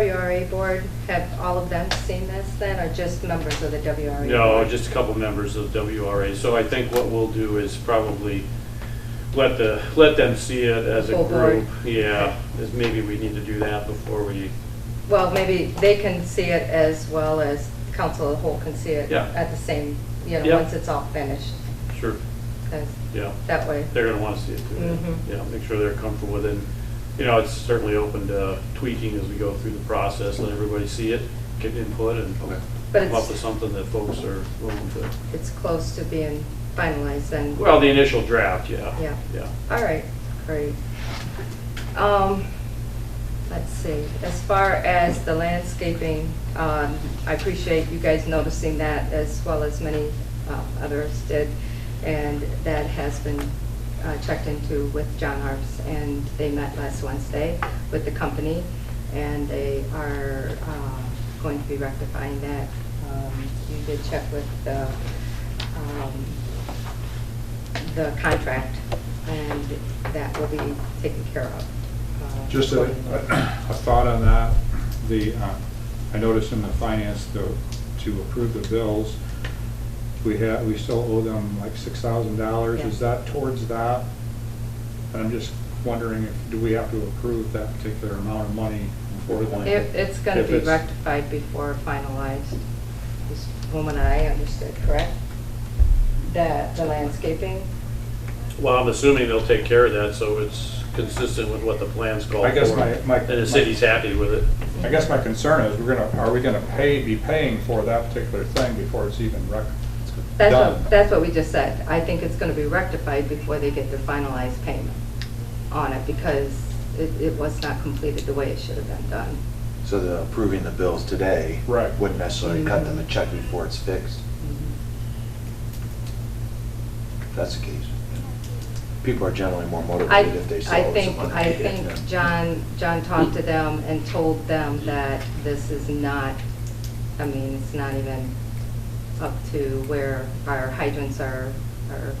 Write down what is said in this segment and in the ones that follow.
WRA board, have all of them seen this then, or just members of the WRA? No, board? just a couple members of WRA. So I think what we'll do is probably let the, let them see it as a Full board. group. Yeah, is maybe we need to do that before we, Well, maybe they can see it as well as council of the whole can see it Yeah. at the same, you Yeah. know, once it's all finished, sure, 'cause yeah. that way. They're gonna wanna see it too. Mhm. Yeah, make sure they're comfortable with it. And, You know, it's certainly open to tweaking as we go through the process, let everybody see it, get input and come But up with it's, something that folks are willing to. it's close to being finalized then. Well, the initial draft, yeah. Yeah. Yeah. All right, great. Um, let's see, as far as the landscaping, um, I appreciate you guys noticing that as well as many uh, others did. And that has been uh, checked into with John Harps and they met last Wednesday with the company. And they are, uh, going to be rectifying that. Um, you did check with the, um, the contract, and that will be taken care of. uh, Just a, accordingly. a thought on that, the, uh, I noticed in the finance, though, to approve the bills, we have, we still owe them like six thousand dollars, is Yeah. that towards that? And I'm just wondering, if do we have to approve that particular amount of money for them? It- It's going If to be rectified before finalized. This woman and I understood, correct? That the landscaping, Well, I'm assuming they'll take care of that, so it's consistent with what the plans call for. I guess my- my- And the city's happy with it. I guess my concern is, we're gonna, are we gonna pay, be paying for that particular thing before it's even rec, that's done? what, that's what we just said. I think it's going to be rectified before they get their finalized payment on it, because it, it was not completed the way it should have been done. So the approving the bills today. Right. Wouldn't necessarily cut them a Mm-hmm. check before it's fixed, Mm-hmm. if that's the case. People are generally more I, motivated if they saw I it was a think, money. I think John, John talked to them and told them that this is not, I mean, it's not even up to where our hydrants are, are,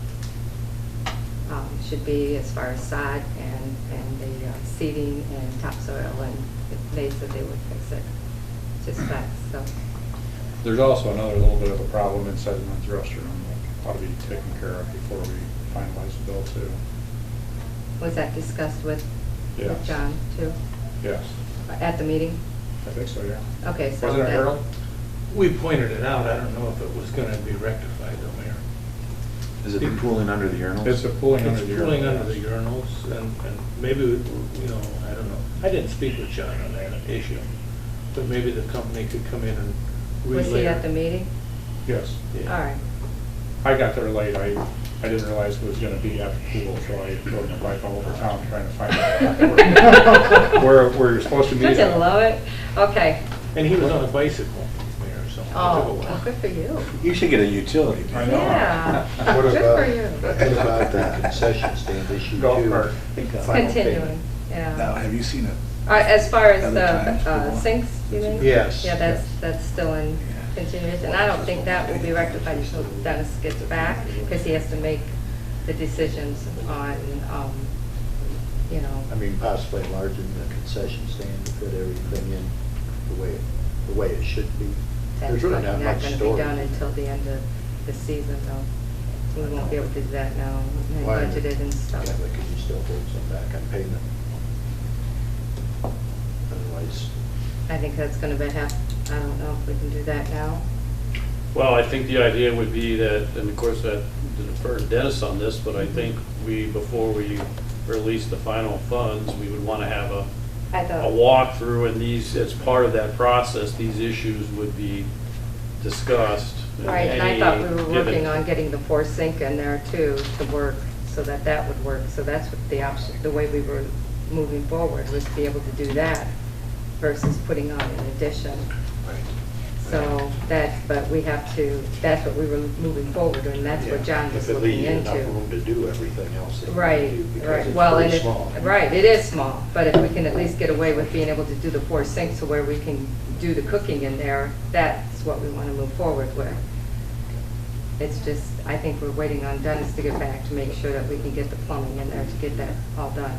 um, should be as far as sod and, and the uh, seeding and topsoil, and they said they would fix it, just that, so. There's also another little bit of a problem inside the men's restroom that ought to be taken care of before we finalize the bill too. Was that discussed with, with Yes. John too, Yes, at the meeting? I think so, yeah. Okay, so. Wasn't it that- Harold? We pointed it out, I don't know if it was gonna be rectified though, Mayor. Is it the pooling under the urinals? It's a pooling under the It's urinal. pulling under the urinals, and, and maybe, you know, I don't know. I didn't speak with John on that issue, but maybe the company could come in and relay. Was he at the meeting? Yes. All Yeah. right. I got there late, I, I didn't realize it was gonna be at the pool, so I rode my bike all over town trying to find out where, where you're supposed to meet. Don't you at. love it? Okay. And he was on a bicycle, Mayor, so. it took a Oh, while. well, good for you. You should get a utility. I bill. know. Yeah. What Good about- for you. What about the concession stand issue Golf too? cart. Final Continuing, payment. Now, yeah. have you seen it? All right, As far as the Other times uh, before. sinks, you mean? Yes. Yeah, that's, that's still in continuation. I don't think that will be rectified until Dennis gets back, because he has to make the decisions on, um, you know, I mean, possibly enlarging the concession stand to fit everything in the way, the way it should be. that's There's probably not really not going much to be storage. done until the end of the season, though. We won't be able to do that now, and Why? budgeted and Yeah, stuff. but could you still hold some back on payment? Otherwise, I think that's gonna be half, I don't know if we can do that now. Well, I think the idea would be that, and of course, that defer to Dennis on this, but Mm-hmm. I think we, before we release the final funds, we would want to have a, I a thought, walkthrough, and these, as part of that process, these issues would be discussed. right, and I thought we were Any given- working on getting the four sink in there too, to work, so that that would work. So that's what the option, the way we were moving forward, was to be able to do that versus putting on an addition. So that, but we have to, that's what we were moving forward, and that's what yeah, John was if it leaves looking you into. Enough room to do everything else that you Right, can do, because right, it's well, pretty and it, small. right, it is small, but if we can at least get away with being able to do the four sinks to where we can do the cooking in there, that's what we want to move forward with. It's just, I think we're waiting on Dennis to get back to make sure that we can get the plumbing in there to get that all done.